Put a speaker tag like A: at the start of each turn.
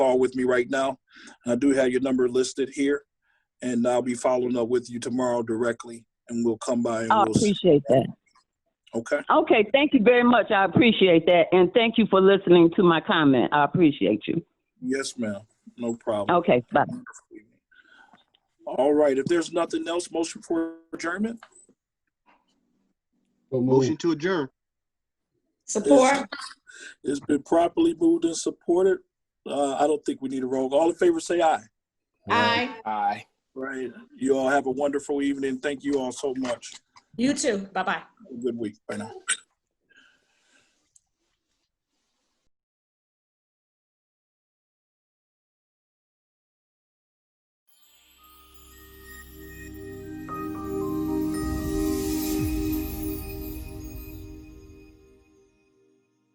A: call with me right now. I do have your number listed here, and I'll be following up with you tomorrow directly, and we'll come by and
B: Oh, I
A: we'll see.
B: appreciate that.
A: Okay.
B: Okay, thank you very much. I appreciate that. And thank you for listening to my comment. I appreciate you.
A: Yes, ma'am. No problem.
B: Okay, Oh, bye.
A: All right. If there's nothing else, motion for adjournment.
C: So
D: Motion
C: moved.
D: to adjourn.
E: Support.
A: It's been properly moved and supported. Uh, I don't think we need a roll. All in favor, say aye.
E: Aye.
C: Aye.
A: Right. You all have a wonderful evening. Thank you all so much.
E: You too. Bye-bye.
A: Have a Good week. Bye now.